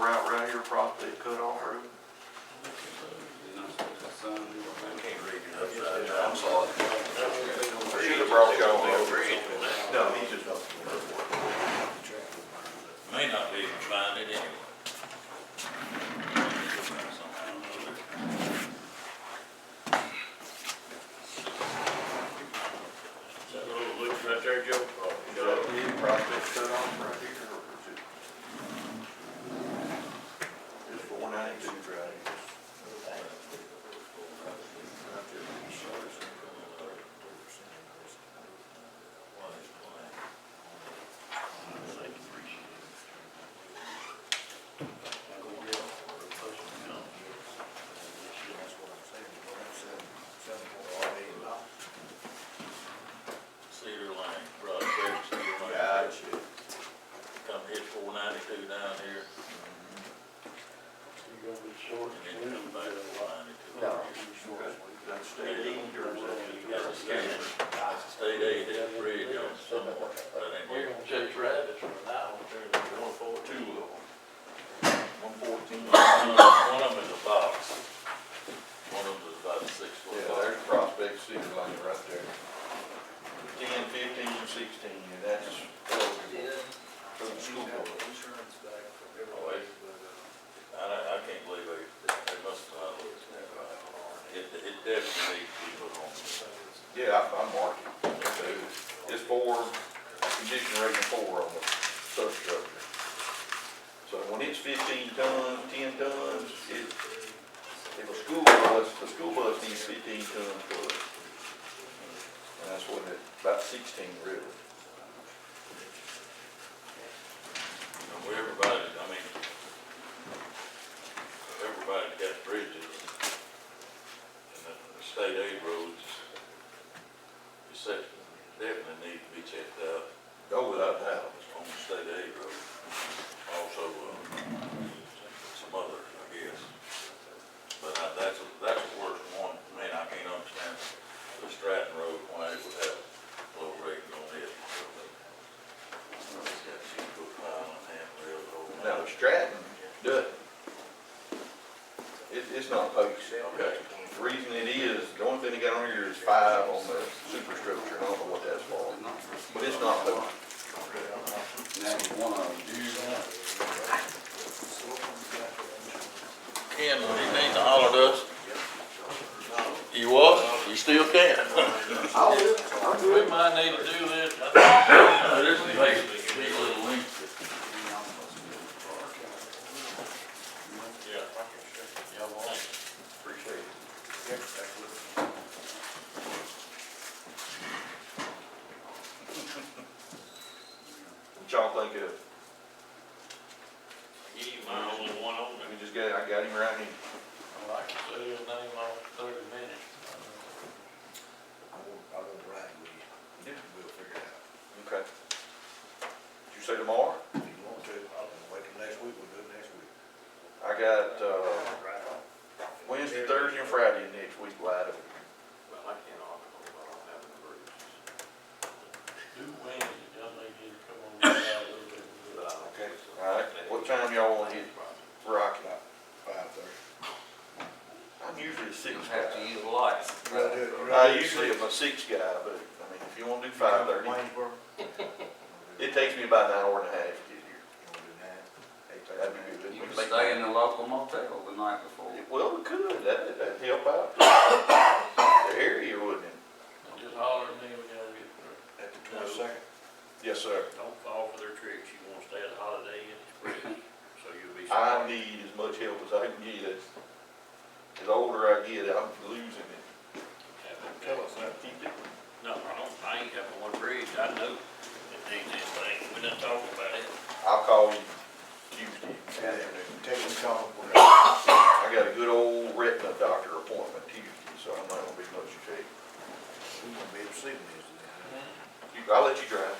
route right here, probably cut off road. can't read it upside down, I'm sorry. Should have brought y'all over. No, he just. May not be able to find it anyway. That little loop right there, Joe, oh, He probably cut off right here. or was it- Just the one I need to drive. Cedar Lane, Broadway, Cedar Lane. Gotcha. Come hit four ninety-two down here. You're gonna be short. And then come back to four ninety-two. No. That's state aid or is that? That's a state, that's a state aid, that's a bridge on somewhere, but in We're here, gonna chase rabbits from now, turn to one four Two of two. them. One fourteen. one of them- one of them is a box. One of them is about a six foot Yeah, box. there's Prospect City Lane right there. Ten, fifteen, and sixteen, and that's eligible for the school board. Oh, it- I, don't- I can't believe they, they must have, thought it was that right. it, it definitely needs to be put on. Yeah, I, I marked it. Okay. It's four, condition rating four on the substructure. So when it's fifteen tons, ten tons, it, if a school bus, a school bus needs fifteen tons plus. And that's what it, about sixteen really. And we, everybody, I mean, everybody got bridges, and the the state aid roads, is sec- definitely need to be checked out Go without doubt. on the state aid road. Also, uh, some others, I guess. But I, that's, a- that's the worst one, I mean, I can't understand the Stratton Road, why it would have low rating on it. It's got two foot pile and half rail over. Now, Stratton doesn't. It, it's not posted. Okay. The reason it is, the only thing they got on here is five on the superstructure, I don't know what that's for, but it's not posted. Ken, when he needs to holler at us. You what? You still can. I'm We good. might need to do this. Uh, This is basically these little links. Yeah. Y'all want? Appreciate it. What y'all think of, Give you my only one on let there. me just get, I got him right here. I like to say his name on thirty minutes. Okay. Did you say tomorrow? I got, uh, Wednesday, Thursday, and Friday next week wide open. Well, I can't offer them, I don't have the bridges. Do Wednesday, y'all may need to come on down a little bit. Okay. All right, what time y'all wanna hit Rocky? I'm usually a six guy. use lights. I usually am a six guy, but, I mean, if you wanna do five thirty, it takes me about an hour and a half to get here. That'd be good. You We can make could stay that- in the local motel the night before. Well, we could, that'd, that'd help out the area, wouldn't it? Just holler at me when y'all get through. Yes, sir. Don't fall for their tricks, you wanna stay at the Holiday Inn Express, so you'll be. I need as much help as I can get. As older I get, I'm losing it. Tell us I keep it. No, I don't, I ain't got one bridge, I know it needs this thing, we done talked about it. I'll call you Tuesday afternoon. I got a good old retina doctor appointment Tuesday, so I'm not gonna be much shape. You- I'll let you drive.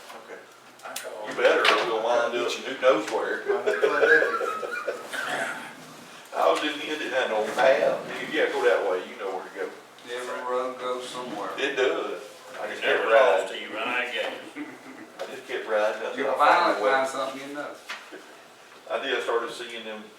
I called. You better, or we'll wind up in who knows where. I was in the end of that old path. Yeah, go that way, you know where to go. Every road goes somewhere. It does. I just kept Never lost riding. to you, and I got you. I just kept riding. until I You'll found a finally way. find something you know. I did, I started seeing them